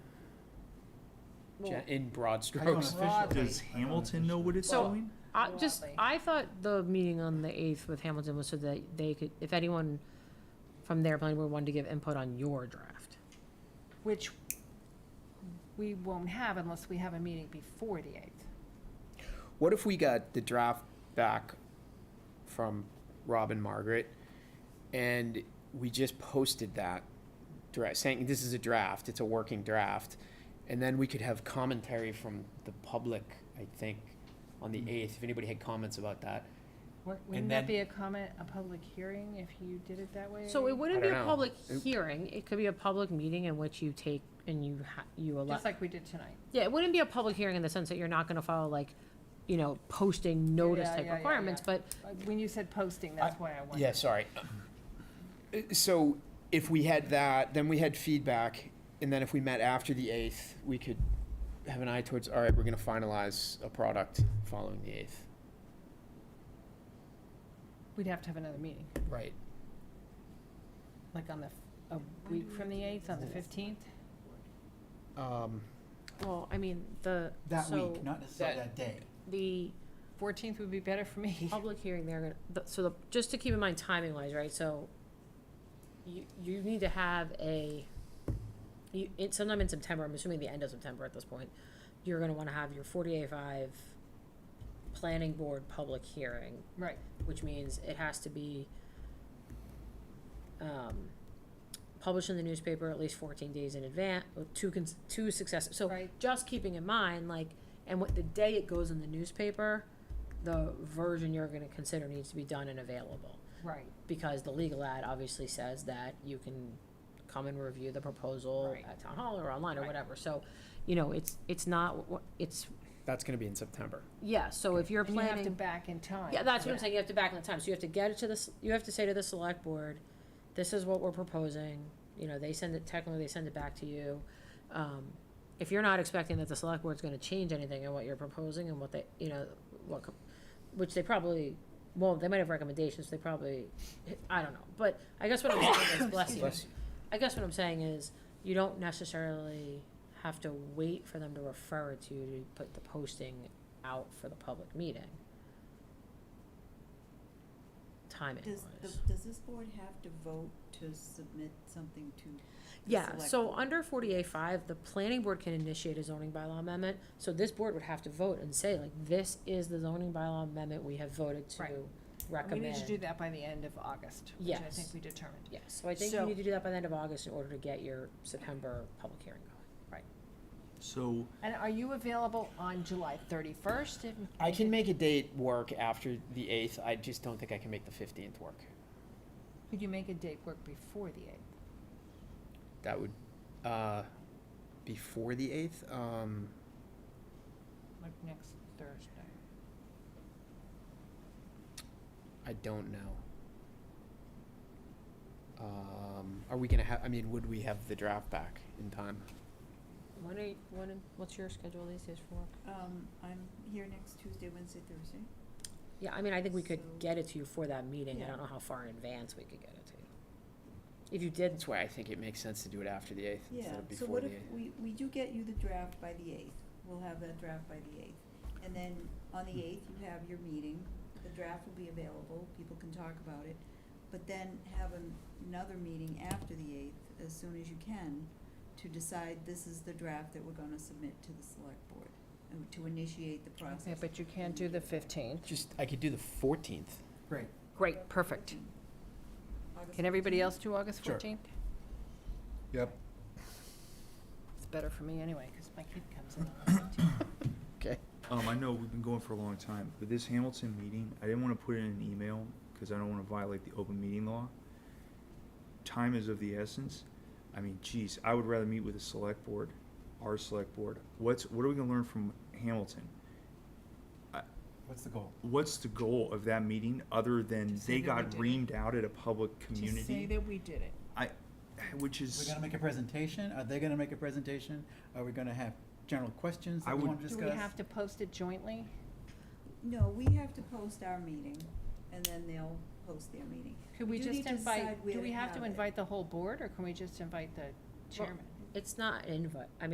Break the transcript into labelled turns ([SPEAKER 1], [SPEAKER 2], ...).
[SPEAKER 1] gen- in broad strokes.
[SPEAKER 2] Broadly.
[SPEAKER 3] Does Hamilton know what it's
[SPEAKER 4] So-
[SPEAKER 3] doing?
[SPEAKER 4] I just,
[SPEAKER 2] Broadly.
[SPEAKER 4] I thought the meeting on the eighth with Hamilton was so that they could, if anyone from their planning board wanted to give input on your draft.
[SPEAKER 2] Which we won't have unless we have a meeting before the eighth.
[SPEAKER 1] What if we got the draft back from Rob and Margaret and we just posted that dra saying this is a draft, it's a working draft, and then we could have commentary from the public, I think, on the eighth, if anybody had comments about that.
[SPEAKER 2] Wouldn't
[SPEAKER 1] And then-
[SPEAKER 2] that be a comment, a public hearing if you did it that way?
[SPEAKER 4] So it wouldn't
[SPEAKER 1] I
[SPEAKER 4] be
[SPEAKER 1] don't
[SPEAKER 4] a
[SPEAKER 1] know.
[SPEAKER 4] public
[SPEAKER 1] It-
[SPEAKER 4] hearing, it could be a public meeting in which you take and you ha- you allow.
[SPEAKER 2] Just like we did tonight.
[SPEAKER 4] Yeah, it wouldn't be a public hearing in the sense that you're not gonna follow like, you know, posting notice
[SPEAKER 2] yeah,
[SPEAKER 4] type
[SPEAKER 2] yeah, yeah,
[SPEAKER 4] requirements, but
[SPEAKER 2] Uh, When you said posting, that's why I
[SPEAKER 1] Yeah,
[SPEAKER 2] wondered.
[SPEAKER 1] sorry. Uh, So if we had that, then we had feedback, and then if we met after the eighth, we could have an eye towards, all right, we're gonna finalize a product following the eighth.
[SPEAKER 2] We'd have to have another meeting,
[SPEAKER 1] Right.
[SPEAKER 2] like on the, f- a week from the eighth, on the fifteenth?
[SPEAKER 1] Um,
[SPEAKER 4] Well, I mean, the,
[SPEAKER 5] That
[SPEAKER 4] so,
[SPEAKER 5] week, not necessarily that day.
[SPEAKER 4] the
[SPEAKER 2] Fourteenth would be better for me.
[SPEAKER 4] public hearing, they're gonna, the- so the, just to keep in mind timing wise, right, so you, you need to have a, you, it's sometime in September, I'm assuming the end of September at this point, you're gonna wanna have your forty-eight five planning board public hearing,
[SPEAKER 2] Right,
[SPEAKER 4] which means it has to be um, published in the newspaper at least 14 days in advance, two, cons- two successive. So
[SPEAKER 2] Right.
[SPEAKER 4] just keeping in mind, like, and what the day it goes in the newspaper, the version you're going to consider needs to be done and available.
[SPEAKER 2] right,
[SPEAKER 4] Because the legal ad obviously says that you can come and review the proposal
[SPEAKER 2] Right.
[SPEAKER 4] at town hall or online or
[SPEAKER 2] Right.
[SPEAKER 4] whatever. So, you know, it's, it's not, wh- it's,
[SPEAKER 1] that's gonna be in September.
[SPEAKER 4] yeah, so if you're
[SPEAKER 2] and you
[SPEAKER 4] planning.
[SPEAKER 2] have to back in time.
[SPEAKER 4] Yeah, that's what I'm saying, you have to back in the time, so you have to get it to this, you have to say to the select board, this is what we're proposing, you know, they send it, technically they send it back to you. Um, if you're not expecting that the select board's gonna change anything in what you're proposing and what they, you know, what, co- which they probably, well, they might have recommendations, they probably, I don't know, but I guess what I'm saying is, bless you.
[SPEAKER 1] Bless you.
[SPEAKER 4] I guess what I'm saying is, you don't necessarily have to wait for them to refer it to you to put the posting out for the public meeting. Timing
[SPEAKER 6] Does, the-
[SPEAKER 4] wise.
[SPEAKER 6] does this board have to vote to submit something to? the
[SPEAKER 4] Yeah,
[SPEAKER 6] select
[SPEAKER 4] so
[SPEAKER 6] board?
[SPEAKER 4] under forty A five, the planning board can initiate a zoning bylaw amendment, so this board would have to vote and say, like, this is the zoning bylaw amendment we have voted to
[SPEAKER 2] Right. We
[SPEAKER 4] recommend.
[SPEAKER 2] need to do that by the end of August, which I
[SPEAKER 4] Yes.
[SPEAKER 2] think we determined.
[SPEAKER 4] Yes, so I think you
[SPEAKER 2] So-
[SPEAKER 4] need to do that by the end of August in order to get your September public hearing going.
[SPEAKER 3] So,
[SPEAKER 2] And are you available on July thirty-first?
[SPEAKER 1] I can make a date work after the eighth, I just don't think I can make the fifteenth work.
[SPEAKER 2] Could you make a date work before the eighth?
[SPEAKER 1] That would, uh, before the eighth, um,
[SPEAKER 2] Like next Thursday?
[SPEAKER 1] I don't know. Um, are we gonna have, I mean, would we have the draft back in time?
[SPEAKER 4] When are, you- when, what's your schedule these days for work?
[SPEAKER 6] Um, I'm here next Tuesday, Wednesday, Thursday.
[SPEAKER 4] Yeah, I mean, I think we could
[SPEAKER 6] So-
[SPEAKER 4] get it to you for that meeting, I
[SPEAKER 6] Yeah.
[SPEAKER 4] don't know how far in advance we could get it to you. If you did,
[SPEAKER 1] That's why I think it makes sense to do it after the eighth
[SPEAKER 6] Yeah,
[SPEAKER 1] instead of
[SPEAKER 6] so
[SPEAKER 1] before
[SPEAKER 6] what
[SPEAKER 1] the
[SPEAKER 6] if,
[SPEAKER 1] eighth.
[SPEAKER 6] we, we do get you the draft by the eighth, we'll have that draft by the eighth. And then on
[SPEAKER 1] Hmm.
[SPEAKER 6] the eighth, you have your meeting, the draft will be available, people can talk about it. But then have an- another meeting after the eighth, as soon as you can, to decide this is the draft that we're gonna submit to the select board, and to initiate the
[SPEAKER 2] Okay,
[SPEAKER 6] process.
[SPEAKER 2] but you can't do the fifteenth.
[SPEAKER 1] Just, I could do the fourteenth.
[SPEAKER 5] Great.
[SPEAKER 4] great, perfect.
[SPEAKER 6] August
[SPEAKER 2] Can everybody
[SPEAKER 6] 14th?
[SPEAKER 2] else do August
[SPEAKER 5] Sure.
[SPEAKER 2] fourteenth?
[SPEAKER 5] Yep.
[SPEAKER 2] It's better for me anyway, because my kid comes in on the 15th.
[SPEAKER 1] Okay.
[SPEAKER 3] um, I know we've been going for a long time, but this Hamilton meeting, I didn't wanna put it in an email, cause I don't wanna violate the open meeting law. Time is of the essence. I mean, geez, I would rather meet with the select board, our select board. What's, what are we gonna learn from Hamilton?
[SPEAKER 5] What's the goal?
[SPEAKER 3] What's the goal of that meeting, other than
[SPEAKER 2] Just say
[SPEAKER 3] they
[SPEAKER 2] that we
[SPEAKER 3] got
[SPEAKER 2] did it.
[SPEAKER 3] reamed out at a public community?
[SPEAKER 2] Just say that we did it.
[SPEAKER 3] I, which
[SPEAKER 5] We're
[SPEAKER 3] is,
[SPEAKER 5] gonna make a presentation? Are they gonna make a presentation? Are we gonna have general questions
[SPEAKER 3] I
[SPEAKER 5] that we
[SPEAKER 3] would-
[SPEAKER 5] wanna
[SPEAKER 2] Do
[SPEAKER 5] discuss?
[SPEAKER 2] we have to post it jointly?
[SPEAKER 6] No, we have to post our meeting, and then they'll post their meeting.
[SPEAKER 2] Could we
[SPEAKER 6] do need
[SPEAKER 2] just
[SPEAKER 6] to decide
[SPEAKER 2] invite,
[SPEAKER 6] where
[SPEAKER 2] do
[SPEAKER 6] to
[SPEAKER 2] we have to
[SPEAKER 6] have it.
[SPEAKER 2] invite the whole board, or can we just invite the chairman?
[SPEAKER 4] It's not an invite, I mean.